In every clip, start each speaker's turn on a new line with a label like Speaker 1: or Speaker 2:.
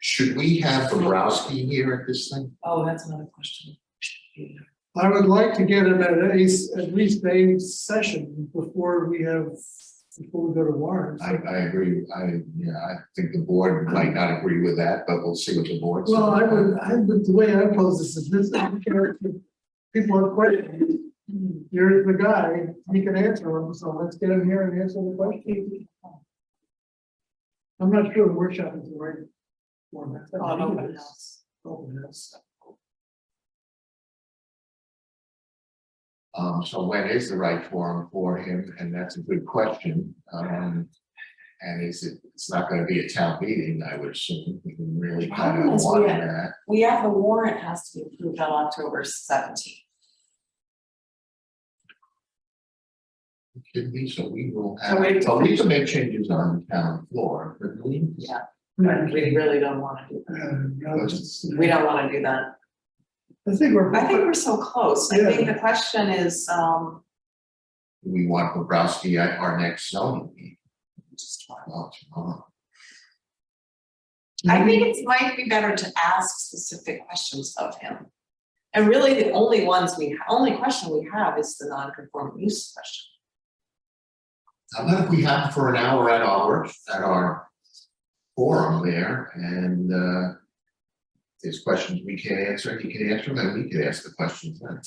Speaker 1: Should we have Bobrowski here at this thing?
Speaker 2: Oh, that's another question.
Speaker 3: I would like to get him at ace, at least a session before we have, before we go to warrants.
Speaker 1: I, I agree, I, yeah, I think the board might not agree with that, but we'll see what the board says.
Speaker 3: Well, I would, I would, the way I pose this is this, is character. people have questions. Here's the guy, he can answer them, so let's get him here and answer the question. I'm not sure the workshop is the right. format.
Speaker 2: On open house.
Speaker 3: Open house.
Speaker 1: Um, so when is the right forum for him? And that's a good question. Um, and is it, it's not gonna be a town meeting, I would assume. We can really kind
Speaker 2: Problem
Speaker 1: of
Speaker 2: is we
Speaker 1: want
Speaker 2: have-
Speaker 1: that.
Speaker 2: We have the warrant has to be approved on October seventeenth.
Speaker 1: It Could be, so we will
Speaker 2: So
Speaker 1: have,
Speaker 2: we-
Speaker 1: but we can make changes on the town floor, but we.
Speaker 2: Yeah. And we really don't wanna do
Speaker 3: Uh,
Speaker 2: that.
Speaker 3: no, it's-
Speaker 2: We don't wanna do that.
Speaker 3: I think we're.
Speaker 2: I think we're so close. I
Speaker 3: Yeah.
Speaker 2: think the question is, um,
Speaker 1: We want Bobrowski at our next zoning meeting.
Speaker 2: just one.
Speaker 1: Well, tomorrow.
Speaker 2: I think it might be better to ask specific questions of him. And really, the only ones we, only question we have is the non-conforming use question.
Speaker 1: How about if we have for an hour at our, at our forum there and uh. There's questions we can answer, he can answer them, we can ask the questions then.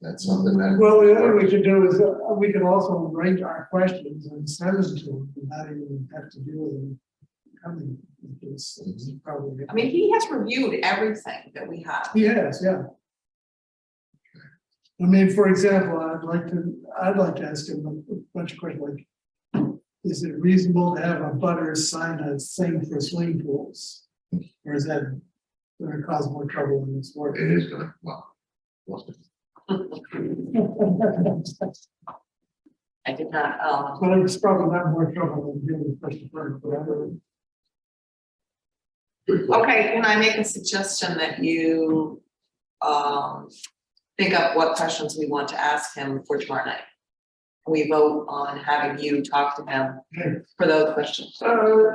Speaker 1: That's something that.
Speaker 3: Well, the other we could do is, uh, we could also arrange our questions and send them to them, without even have to deal with them. Coming, it's it's probably.
Speaker 2: I mean, he has reviewed everything that we have.
Speaker 3: Yes, yeah. I mean, for example, I'd like to, I'd like to ask him a bunch of questions like. Is it reasonable to have a butter sign a thing for swimming pools? Or is that gonna cause more trouble in this world?
Speaker 1: It is gonna, well. what's it?
Speaker 2: I did not, um,
Speaker 3: But it's probably not more trouble than dealing with first part, but I don't.
Speaker 1: Good question.
Speaker 2: okay, can I make a suggestion that you, um, think up what questions we want to ask him for tomorrow night? We vote on having you talk to him
Speaker 3: Okay.
Speaker 2: for those questions.
Speaker 3: Uh,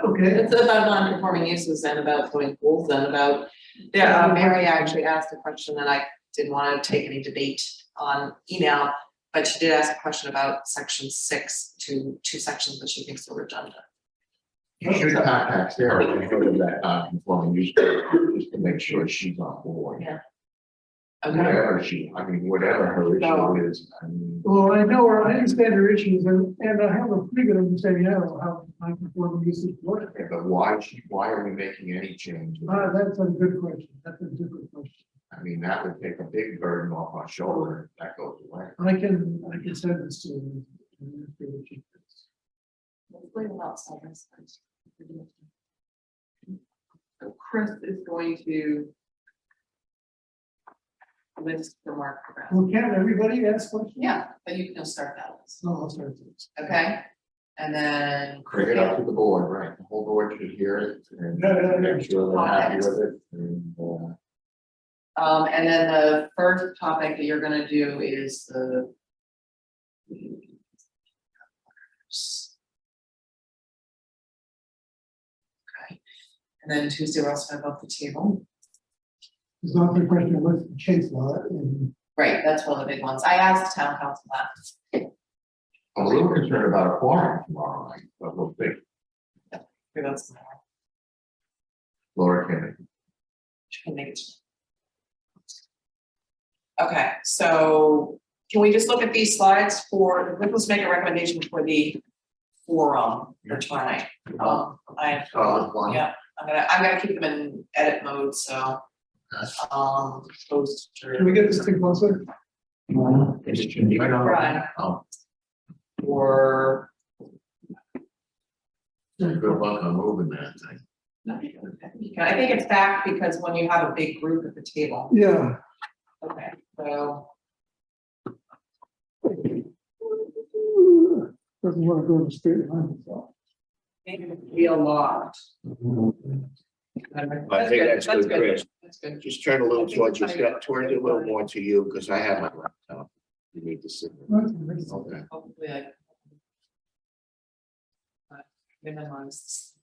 Speaker 3: okay,
Speaker 2: It's about non-conforming uses and about swimming pools and about, yeah, uh, Mary actually asked a question that I didn't want to take any debate on email, but she did ask a question about section six to two sections that she thinks are redundant.
Speaker 1: You should contact Sarah and go to that uh, non-conforming use permit, just to make sure she's on board.
Speaker 2: Okay,
Speaker 1: Whatever she, I mean, whatever her issue is, I mean,
Speaker 3: well, I know, I understand your issues and, and I have a pretty good understanding of how non-conforming uses work.
Speaker 1: yeah, but why she, why are we making any change?
Speaker 3: Ah, that's a good question, that's a different question.
Speaker 1: I mean, that would take a big burden off our shoulder if that goes away.
Speaker 3: I can, I can send this to you. and if you would keep this.
Speaker 2: Hopefully we're not saying this. So Chris is going to list the mark around.
Speaker 3: Well, can everybody ask questions?
Speaker 2: Yeah, but you can start that list,
Speaker 3: No, I'll start this.
Speaker 2: okay? And then.
Speaker 1: Bring it up to the board, right, the whole board should hear it and
Speaker 3: No, no, no.
Speaker 1: make sure they're happy with it and, uh,
Speaker 2: Um, and then the first topic that you're gonna do is the. Okay, and then Tuesday we're also gonna vote the table.
Speaker 3: There's not a question of what's the case law and
Speaker 2: Right, that's one of the big ones. I asked town council that.
Speaker 1: I'm a little concerned about a forum tomorrow night, but we'll think,
Speaker 2: Okay, that's-
Speaker 1: Laura can,
Speaker 2: she can make it. Okay, so can we just look at these slides for, let's make a recommendation for the forum for tonight. Um, I,
Speaker 1: Oh, one.
Speaker 2: yeah, I'm gonna, I'm gonna keep them in edit mode, so, um,
Speaker 3: can we
Speaker 2: poster
Speaker 3: get this thing closer?
Speaker 1: It just shouldn't be right on.
Speaker 2: Right.
Speaker 1: Oh,
Speaker 2: or.
Speaker 1: Um, good luck on moving that thing.
Speaker 2: I think it's back because when you have a big group at the table,
Speaker 3: Yeah,
Speaker 2: okay, so,
Speaker 3: doesn't want to go to straight line. so.
Speaker 2: maybe it'll be a lot.
Speaker 4: I think that's good, Chris.
Speaker 2: That's good.
Speaker 4: Just turn a little towards you,
Speaker 2: Okay.
Speaker 4: turn it a little more to you, because I have my laptop. You need to see. it.
Speaker 3: That's-
Speaker 1: Okay,
Speaker 2: Hopefully I. Minimize